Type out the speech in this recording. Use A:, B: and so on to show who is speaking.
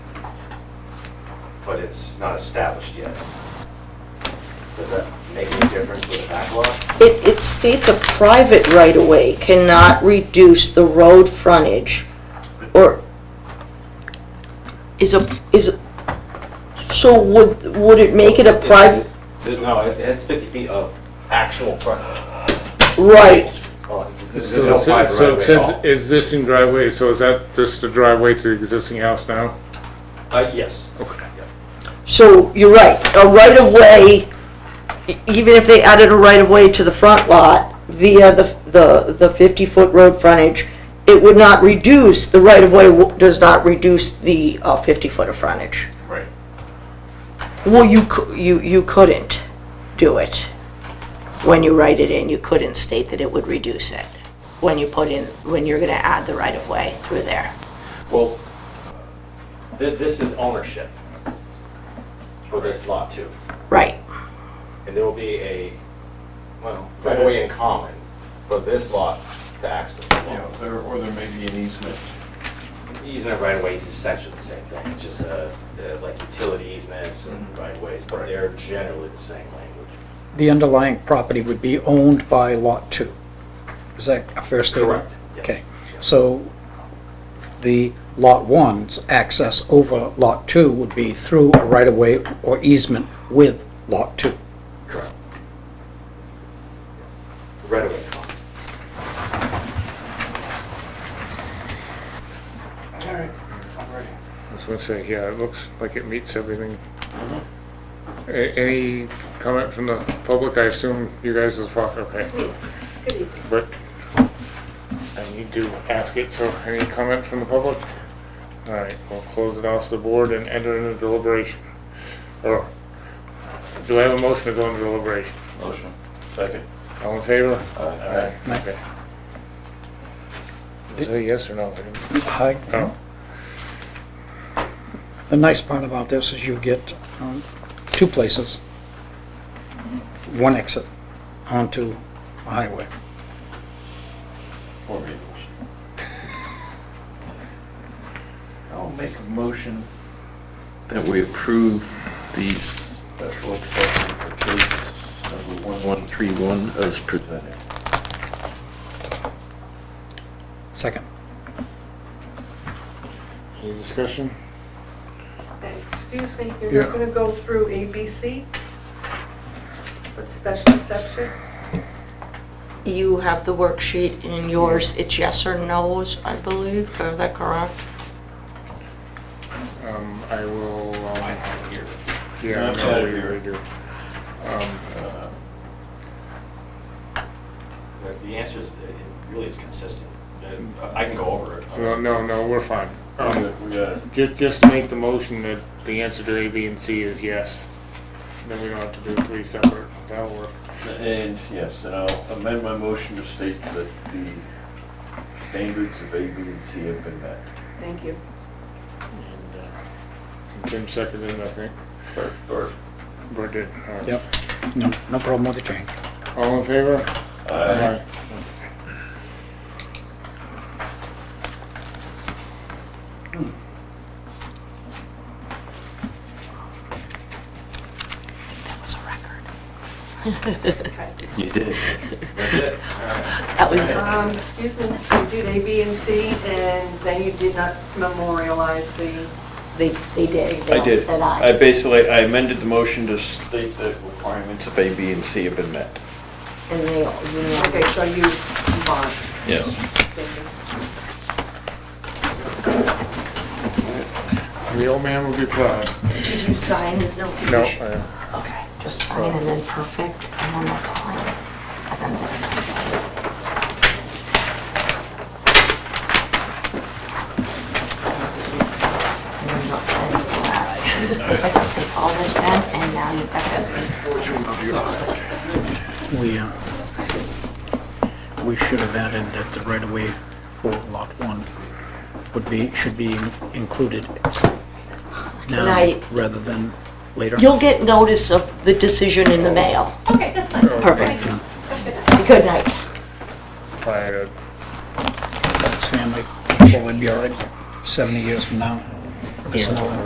A: but it's not established yet. Does that make any difference with the backlog?
B: It, it states a private right-of-way cannot reduce the road frontage, or is a, is, a- so would, would it make it a private,
A: There's- No, it has 50 feet of actual frontage.
B: right?
A: Oh, it's- There's
C: So
A: no
C: it's-
A: private
C: So
A: right-of-way at
C: since
A: all.
C: existing driveway, so is that just the driveway to the existing house now?
A: Uh, yes.
B: So you're right, a right-of-way, e- even if they added a right-of-way to the front lot via the, the, the 50-foot road frontage, it would not reduce, the right-of-way w- does not reduce the uh, 50-foot of frontage.
A: Right.
B: Well, you, cou- you, you couldn't do it. When you write it in, you couldn't state that it would reduce it, when you put in, when you're gonna add the right-of-way through there.
A: Well, thi- this is ownership for this lot too.
B: Right,
A: And there will be a, well, right-of-way in common for this lot to access the
D: Yeah,
A: lot.
D: there, or there may be an easement.
A: Easement right of ways is essentially the same thing, it's just uh, the, like utility easements and Mm-hmm. right of ways, but they're generally the same language.
E: The underlying property would be owned by Lot 2. Is that a fair statement?
A: Correct, yes.
E: Okay, so the Lot 1's access over Lot 2 would be through a right-of-way or easement with Lot 2.
A: Correct. Right of way in common.
D: All right, I'm ready.
C: I was gonna say, yeah, it looks like it meets everything.
A: Mm-hmm.
C: A- Any comment from the public? I assume you guys are, fine, okay. But I need to ask it, so any comment from the public? All right, we'll close it off to the board and enter into deliberation. Or, do I have a motion to go into deliberation?
D: Motion. Second.
C: All in favor?
D: Aye.
E: Aye.
C: Okay. Is it a yes or no? I didn't-
E: Hi.
A: Uh-huh.
C: Oh,
E: The nice part about this is you get um, two places, one exit onto a highway.
D: Four vehicles. I'll make a motion that we approve the special exception for case number 1131 as presented.
E: Second.
C: any discussion?
F: Excuse me, you're
C: Yeah.
F: not going to go through A, B, C? With special exception?
B: you have the worksheet in yours, it's yes or no's, I believe, is that correct?
C: Um, I will, um,
D: here.
C: yeah, I
D: Yeah,
C: know
D: yeah.
C: we- we do. Um,
D: Uh,
A: The- The answer is, it really is consistent, And I can go over it.
C: No, Um, no, no, we're fine. Um,
D: We got- Um, we got it.
C: Just, just make the motion that the answer to A, B, and C is yes. Then we don't have to do three separate, that'll work.
D: And, yes, and I'll amend my motion to state that the standards of A, B, and C have been met.
F: Thank you.
C: And uh, Tim seconded, I think,
D: Or, or,
C: or did. all right.
E: Yep. No, no problem with the change.
C: All in favor?
D: uh,
B: That was a record.
F: Okay.
D: you did.
A: That's it, all right.
B: That was it.
F: Um, Excuse me, you did A, B, and C, and then you did not memorialize the,
B: They, they did.
D: I did.
B: And
D: I basically, I amended the motion to state the requirements of A, B, and C have been met.
B: And they, all- you know.
F: okay, so you combined.
D: Yes.
F: Thank you.
C: The old man will be proud.
B: Did you sign with no
C: No,
B: condition?
C: I-
B: Okay, just sign and then perfect, and then that's all. And then this. And then not sign the last. Take all this pen, and now you've got this.
E: We, uh, we should have added that the right-of-way for Lot 1 would be, should be included
B: And I-
E: now rather than later.
B: You'll get notice of the decision in the mail.
G: Okay, that's fine.
B: Perfect.
G: Thank you.
B: Good night.
C: I, uh,
E: This family will be all right 70 years from now. It's not-